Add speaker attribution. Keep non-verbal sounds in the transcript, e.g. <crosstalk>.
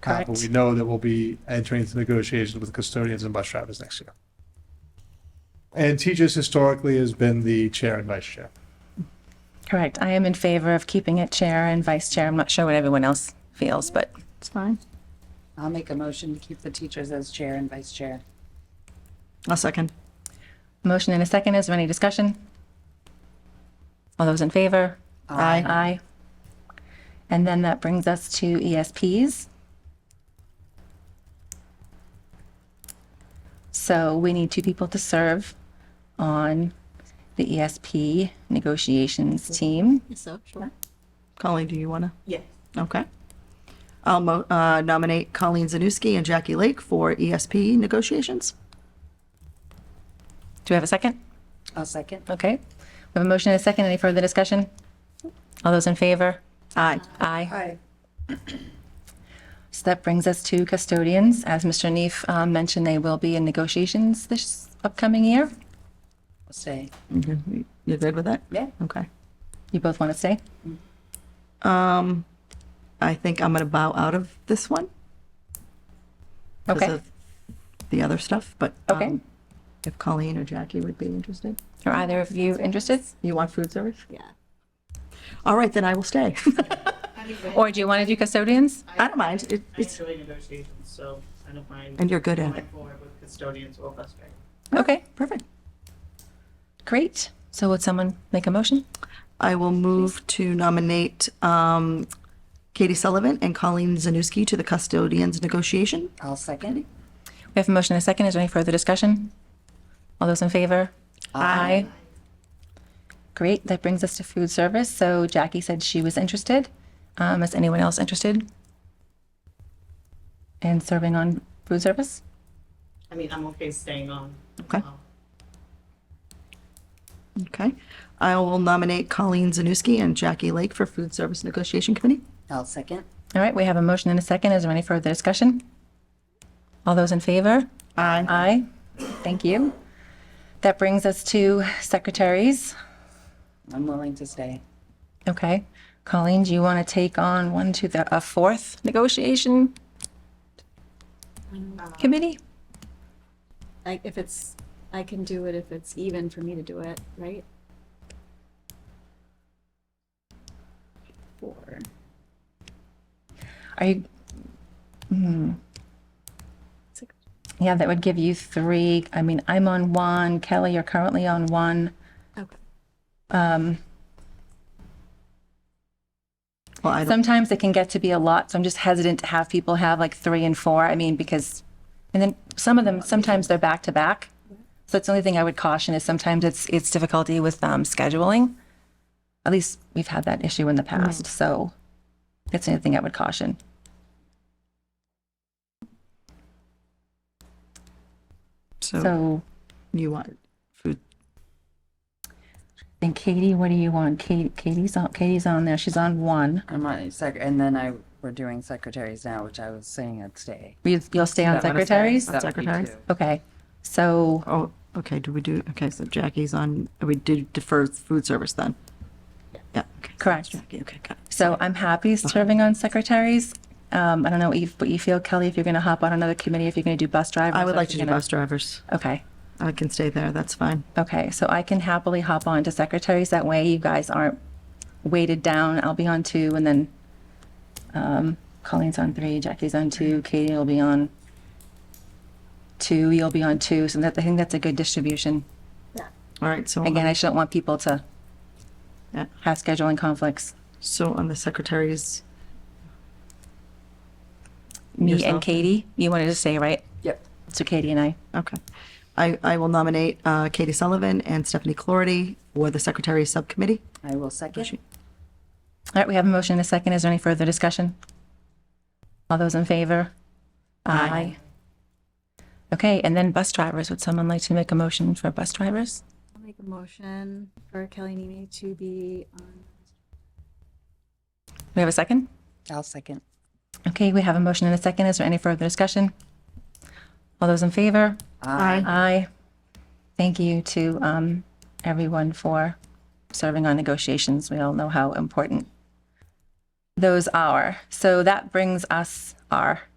Speaker 1: cap, but
Speaker 2: Correct.
Speaker 1: we know that we'll be entering into negotiations with custodians and bus drivers next year. And teachers historically has been the chair and vice chair.
Speaker 2: Correct. I am in favor of keeping it chair and vice chair. I'm not sure what everyone else feels, but it's fine.
Speaker 3: I'll make a motion to keep the teachers as chair and vice chair.
Speaker 4: I'll second.
Speaker 2: Motion and a second. Is there any discussion? All those in favor?
Speaker 4: Aye.
Speaker 2: Aye. And then that brings us to E ESPs. So we need two people to serve on the ESP negotiations team.
Speaker 4: So, sure. Colleen, do you want to?
Speaker 5: Yes.
Speaker 4: Okay. I'll mo- uh, nominate Colleen Zanuski and Jackie Lake for ESP negotiations.
Speaker 2: Do we have a second?
Speaker 3: I'll second.
Speaker 2: Okay. We have a motion and a second. Any further discussion? All those in favor?
Speaker 4: Aye.
Speaker 2: Aye.
Speaker 3: Aye.
Speaker 2: So that brings us to custodians. As Mr. Neef um, mentioned, they will be in negotiations this upcoming year.
Speaker 3: I'll Say,
Speaker 4: You're good with that?
Speaker 3: Yeah.
Speaker 4: Okay.
Speaker 2: You both want to say?
Speaker 4: Um, I think I'm going to bow out of this one. 'cause
Speaker 2: Okay.
Speaker 4: of The other stuff, but.
Speaker 2: Okay.
Speaker 4: um, If Colleen or Jackie would be interested.
Speaker 2: Are either of you interested?
Speaker 4: You want food service? Yeah. All right, then I will stay. <laughs>
Speaker 2: Or do you want to do custodians?
Speaker 4: I don't mind. It-
Speaker 5: I
Speaker 4: It's,
Speaker 5: enjoy negotiations, so I don't mind.
Speaker 4: And you're good at
Speaker 5: going
Speaker 4: it.
Speaker 5: forward with custodians or bus drivers.
Speaker 2: Okay,
Speaker 4: perfect.
Speaker 2: great. So would someone make a motion?
Speaker 4: I will move to nominate um, Katie Sullivan and Colleen Zanuski to the custodians negotiation.
Speaker 3: I'll second.
Speaker 2: We have a motion and a second. Is there any further discussion? All those in favor? Aye. Great, that brings us to food service. So Jackie said she was interested. Um, Is anyone else interested in serving on food service?
Speaker 5: I mean, I'm okay staying on.
Speaker 4: Okay.
Speaker 5: Um,
Speaker 4: Okay. I will nominate Colleen Zanuski and Jackie Lake for food service negotiation committee.
Speaker 3: I'll second.
Speaker 2: All right, we have a motion and a second. Is there any further discussion? All those in favor?
Speaker 4: Aye.
Speaker 2: Aye. Thank you. That brings us to secretaries.
Speaker 3: I'm willing to stay.
Speaker 2: Okay. Colleen, do you want to take on one to the, a fourth negotiation committee?
Speaker 6: Like if it's, I can do it if it's even for me to do it, right? Four.
Speaker 2: Are you? hmm.
Speaker 6: Six.
Speaker 2: Yeah, that would give you three. I mean, I'm on one. Kelly, you're currently on one.
Speaker 6: Okay.
Speaker 2: Um,
Speaker 4: Well, I don't,
Speaker 2: sometimes it can get to be a lot, so I'm just hesitant to have people have like three and four. I mean, because, and then some of them, sometimes they're back to back. So that's the only thing I would caution is sometimes it's, it's difficulty with um, scheduling. At least we've had that issue in the
Speaker 4: Mm-hmm.
Speaker 2: past, so that's the only thing I would caution.
Speaker 4: so
Speaker 2: So,
Speaker 4: you want food,
Speaker 2: then Katie, what do you want? Katie, Katie's on, Katie's on there. She's on one.
Speaker 3: I'm on sec, and then I, we're doing secretaries now, which I was saying I'd stay.
Speaker 2: You- You'll stay on
Speaker 3: That would-
Speaker 2: secretaries?
Speaker 3: that would be
Speaker 4: Secretaries?
Speaker 3: two.
Speaker 2: Okay, so.
Speaker 4: oh, okay, do we do, okay, so Jackie's on, we did defer food service then? Yeah, okay. so
Speaker 2: Correct.
Speaker 4: Jackie, okay, got it.
Speaker 2: So I'm happy
Speaker 4: Uh-huh.
Speaker 2: serving on secretaries. Um, I don't know if, what you feel, Kelly, if you're going to hop on another committee, if you're going to do bus drivers.
Speaker 4: I would
Speaker 2: or if
Speaker 4: like to
Speaker 2: you're
Speaker 4: do
Speaker 2: gonna-
Speaker 4: bus drivers.
Speaker 2: Okay,
Speaker 4: I can stay there, that's fine.
Speaker 2: okay. So I can happily hop on to secretaries. That way you guys aren't weighted down. I'll be on two and then, um, Colleen's on three, Jackie's on
Speaker 4: Mm-hmm.
Speaker 2: two, Katie will be on two, you'll be on two. So that, I think that's a good distribution.
Speaker 4: All right, so.
Speaker 2: Again, I just don't want people to
Speaker 4: Oh, Yeah.
Speaker 2: have scheduling conflicts.
Speaker 4: So on the secretaries,
Speaker 2: Me and
Speaker 4: Yourself.
Speaker 2: Katie, you wanted to say, right?
Speaker 3: Yep.
Speaker 2: So Katie and I.
Speaker 4: okay. I, I will nominate uh, Katie Sullivan and Stephanie Clarity for the secretary subcommittee.
Speaker 3: I will second.
Speaker 2: All right, we have a motion and a second. Is there any further discussion? All those in favor? Aye. Okay, and then bus drivers. Would someone like to make a motion for bus drivers?
Speaker 6: I'll make a motion for Kelly Nimi to be on.
Speaker 2: We have a second?
Speaker 3: I'll second.
Speaker 2: Okay, we have a motion and a second. Is there any further discussion? All those in favor?
Speaker 3: Aye.
Speaker 2: Aye. Thank you to um, everyone for serving on negotiations. We all know how important those are. So that brings us our